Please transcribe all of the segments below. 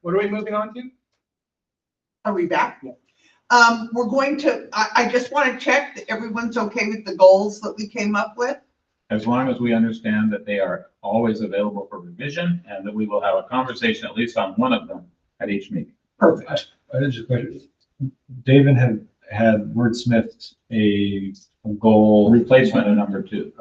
What are we moving on to? Are we back? Yeah. Um, we're going to, I, I just want to check that everyone's okay with the goals that we came up with. as long as we understand that they are always available for revision and that we will have a conversation at least on one of them at each meeting. Perfect. I had just a question. David had, had wordsmithed a goal. Um, Replacement of number two.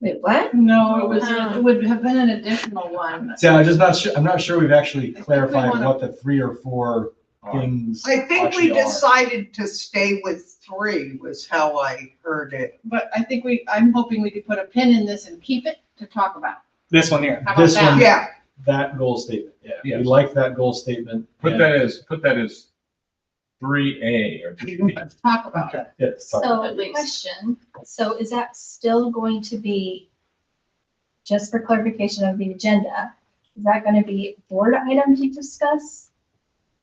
Wait, what? No, it was, Oh. it would have been an additional one. See, I'm just not sure, I'm not sure we've actually think we clarified wanna- what the three or four are. things. I think we actually are. decided to stay with three was how I heard it. But I think we, I'm hoping we could put a pin in this and keep it to talk about. This one here. How about This that? one. Yeah, That goal statement, yeah. Yes. We like that goal statement. Put and- that as, put that as three A or Talk about it. Yes, sorry. So, At least. question, so is that still going to be, just for clarification of the agenda, is that gonna be board item to discuss?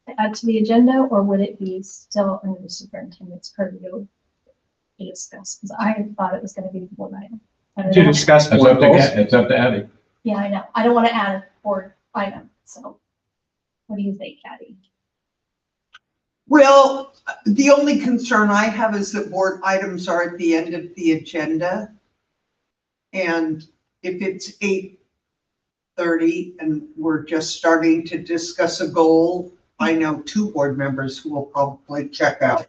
to Add to the agenda, or would it be still under the superintendent's purview to discuss? Because I thought it was gonna be the board item. I don't To know. discuss It's board up to, goals. it's up to Abby. Yeah, I know, I don't wanna add a board item, so what do you think, Patty? well, the only concern I have is that board items are at the end of the agenda. And if it's eight thirty and we're just starting to discuss a goal, I know two board members who will probably check out.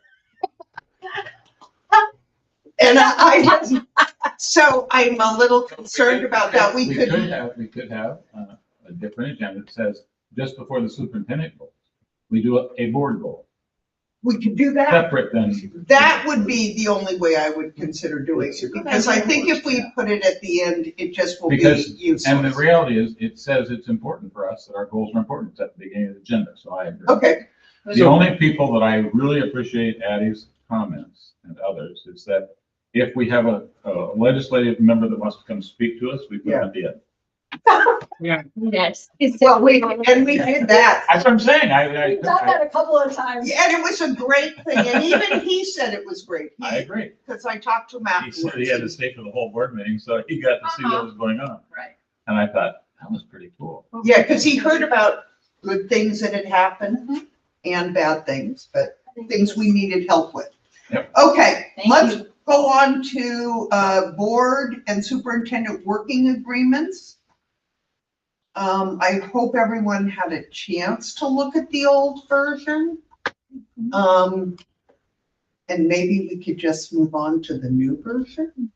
And I, I- so I'm a little concerned about that. We could have, we could have uh, a different agenda that says just before the superintendent goals, we do a- a board goal, We could do that. separate than. That would be the only way I would consider doing it, because I think if we put it at the end, it just will be Because- And the useless. reality is, it says it's important for us that our goals are important. It's at the beginning of the agenda, so I agree. Okay, The only people that I really appreciate Addie's comments and others is that if we have a a legislative member that wants to come speak to us, we put them at the end. Yes. well, we, and we did that. That's what I'm saying. I, I, We've done I- that a couple of times. And it was a great thing, and even he said it was great, I agree. because I talked to him He said he had to afterwards. stay for the whole board meeting, so he got to see Uh-huh. what was going on. Right. And I thought, that was pretty cool. Yeah, because he heard about good things that had happened and bad things, but things we needed help with. Yep. Okay, Thank let's you. go on to uh, board and superintendent working agreements. Um, I hope everyone had a chance to look at the old version. Mm-hmm. Um, and maybe we could just move on to the new version.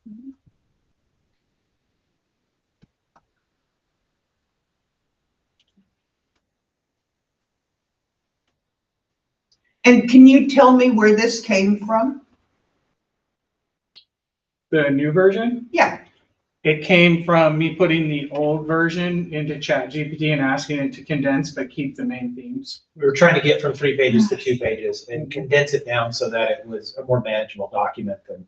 And can you tell me where this came from? The new version. Yeah, It came from me putting the old version into ChatGPT and asking it to condense but keep the main themes. we were trying to get from three pages to two pages and condense it down so that it was a more manageable document than.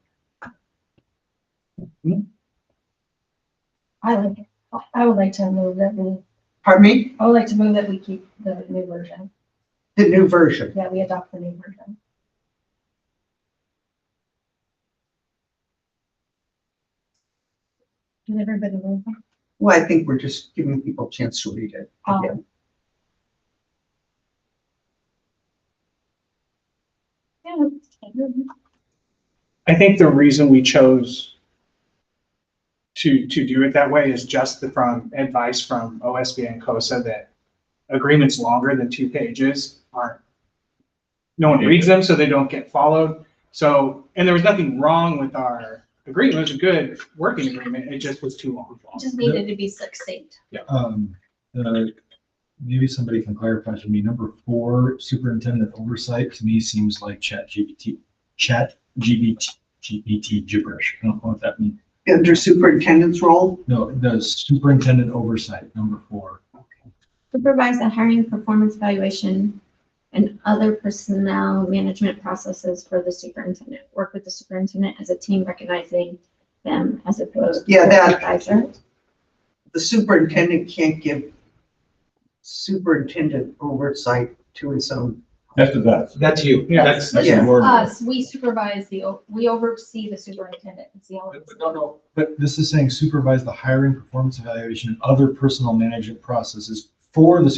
I like, it. I would like to move that we, pardon me? I would like to move that we keep the new version, The new version. that we adopt the new version. Did everybody move? Well, I think we're just giving people a chance to read it. Um, Yeah. Yeah. I think the reason we chose to, to do it that way is just the, from advice from OSB and COSA that agreements longer than two pages aren't, no one reads them, so they don't get followed. So, and there was nothing wrong with our agreement. It was a good working agreement. It just was too long. Just needed to be succinct. Um, uh, Maybe somebody can clarify for me, number four, superintendent oversight, to me seems like chat GPT, chat GBT, GPT gibberish. I don't know what that means. Under superintendent's role, No, the superintendent oversight, number four. supervise the hiring, performance evaluation, and other personnel management processes for the superintendent. Work with the superintendent as a team, recognizing them as opposed. to Yeah, that- Advisor. the superintendent can't give superintendent oversight to his own. That's about it. That's you. Yeah. That's, That's Yeah. the word. Us, Uh, we supervise the, o- we oversee the superintendent. It's the only. No, no, but this is saying supervise the hiring, performance evaluation, and other personal management processes for the